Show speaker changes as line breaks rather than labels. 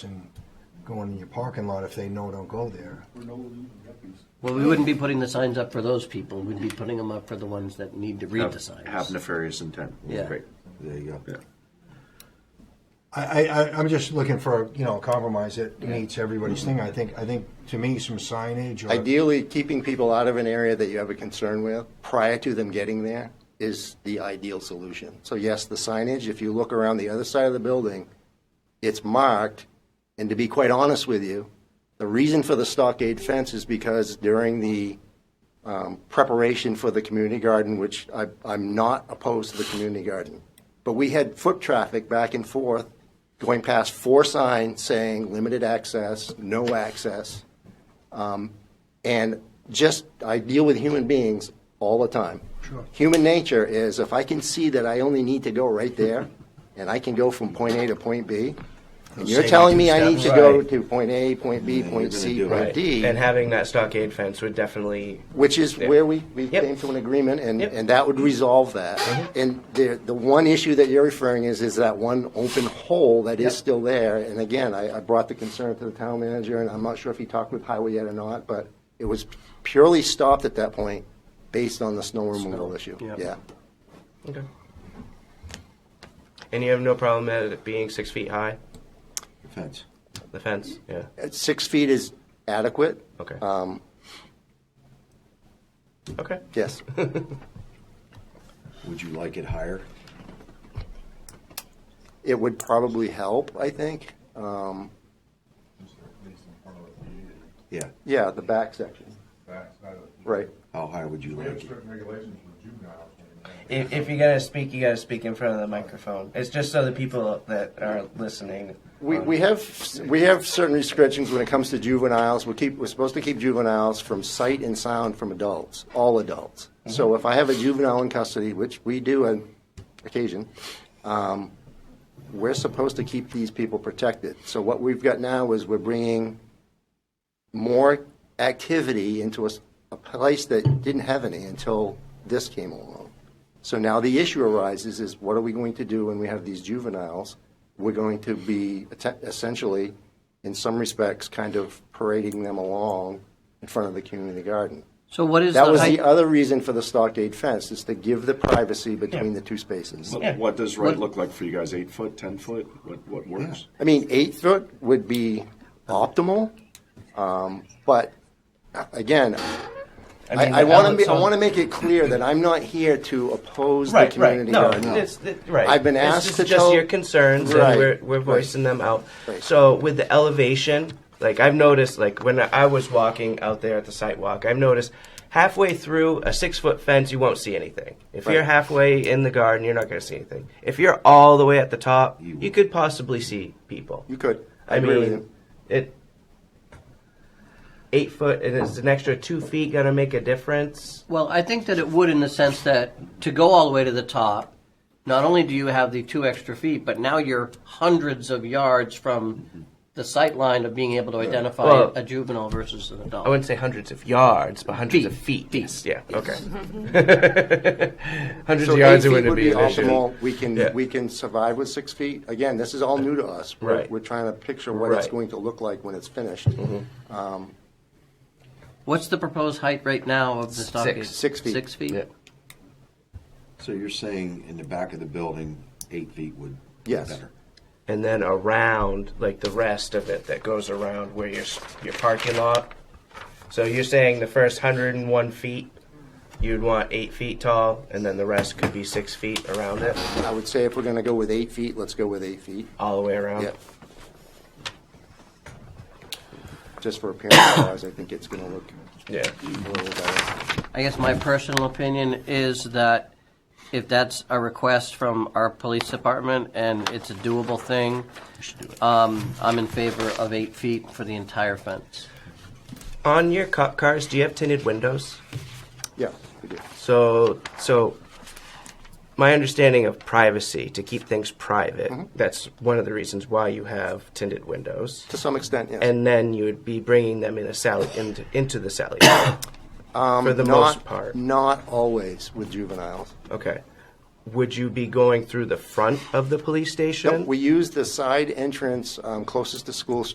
and going in your parking lot if they know don't go there.
We're no illegal yuppies.
Well, we wouldn't be putting the signs up for those people. We'd be putting them up for the ones that need to read
Have-
the signs.
Have nefarious intent.
Yeah.
Great.
There you go.
Yeah.
I, I, I- I'm just looking for, you know, a compromise that meets everybody's thing. I think, I think, to me, some signage or.
Ideally, keeping people out of an area that you have a concern with prior to them getting there is the ideal solution. So yes, the signage, if you look around the other side of the building, it's marked, and to be quite honest with you, the reason for the stockade fence is because during the um, preparation for the community garden, which I, I'm not opposed to the community garden, but we had foot traffic back and forth going past four signs saying limited access, no access. um, And just, I deal with human beings all the time.
Sure.
Human nature is if I can see that I only need to go right there and I can go from point A to point B, and you're
Save
telling
two
me I need to
steps.
go
Right.
to point A, point B,
you're gonna
point C,
do it.
point D,
And having that stockade fence would definitely
which is
Yeah.
where we, we
Yep.
came to an agreement and,
Yep. Mm-hmm.
and that would resolve that. And the, the one issue that you're referring is, is that one open hole that is
Yep.
still there. And again, I, I brought the concern to the town manager and I'm not sure if he talked with highway yet or not, but it was purely stopped at that point based on the snow removal issue.
Yep.
Yeah.
Okay. And you have no problem at it being six feet high,
Fence.
the fence? Yeah.
At Six feet is adequate.
Okay.
Um,
Okay.
yes.
Would you like it higher?
It would probably help, I think. Um,
Yeah.
yeah, the back section. Right.
How high would you
We have
like it?
certain regulations for juveniles. and-
If, if you're gonna speak, you gotta speak in front of the microphone. It's just so the people that are listening.
We,
um,
we have, we have certain restrictions when it comes to juveniles. We keep, we're supposed to keep juveniles from sight and sound from adults, all adults. So if I have a juvenile in custody, which we do on occasion, um, we're supposed to keep these people protected. So what we've got now is we're bringing more activity into a, s- a place that didn't have any until this came along. So now the issue arises is what are we going to do when we have these juveniles? We're going to be atten- essentially, in some respects, kind of parading them along in front of the community garden.
So what is
That
the
was
height?
the uh, other reason for the stockade fence, is to give the privacy between the two spaces.
Yeah.
What does right look like for you guys? Eight foot, ten foot? What what works?
I mean, eight foot would be optimal, um, but uh, again, I,
mean,
I want to
Ellen-
be, I
so-
want to make it clear that I'm not here to oppose
Right,
the community
right. No,
garden.
It's, it- right.
I've been
This
asked
is
to
just
tell-
your concerns,
Right.
and we're we're
Right.
voicing them out.
Right.
So with the elevation, like I've noticed, like when I was walking out there at the sidewalk, I've noticed halfway through a six foot fence, you won't see anything. If you're
Right.
halfway in the garden, you're not going to see anything. If you're all the way at the top, you, could possibly see people.
You could.
I
agree with
mean,
you.
it. Eight foot, and is an extra two feet going to make a difference?
Well, I think that it would in the sense that to go all the way to the top, not only do you have the two extra feet, but now you're hundreds of yards from the sight line of being able to identify
Well-
a juvenile versus an adult.
I wouldn't say hundreds of yards, but hundreds
Feet.
of feet.
Feet.
Yes, Yeah.
Yes.
Okay. hundreds
So
of
eight
yards. It
feet
wouldn't
would be
an issue.
optimal. We
Yeah.
can, we can survive with six feet. Again, this is all new to us. We're-
Right.
We're trying to picture what it's
Right. Mm-hmm.
going to look like when it's finished. Um,
What's the proposed height right now of the stockade?
Six feet.
Six feet?
Yeah.
So you're saying in the back of the building, eight feet would be
Yes.
better?
And then around, like the rest of it that goes around where your s- your parking lot. So you're saying the first hundred and one feet, you'd want eight feet tall, and then the rest could be six feet around it,
I would say if we're going to go with eight feet, let's go with eight feet.
all the way around.
Yep. Just for appearance wise, I think it's going to look
Yeah.
a little better.
I guess my personal opinion is that if that's a request from our police department and it's a doable thing, um, I'm in favor of eight feet for the entire fence.
On your cop cars, do you have tinted windows?
Yeah, we do.
So, so my understanding of privacy to keep things private. That's one of the reasons why you have tinted windows,
To some extent, yes.
and then you would be bringing them in a sally into, into the sally for the
not,
most part.
Not always with juveniles.
Okay, would you be going through the front of the police station?
Nope, We use the side entrance um, closest to School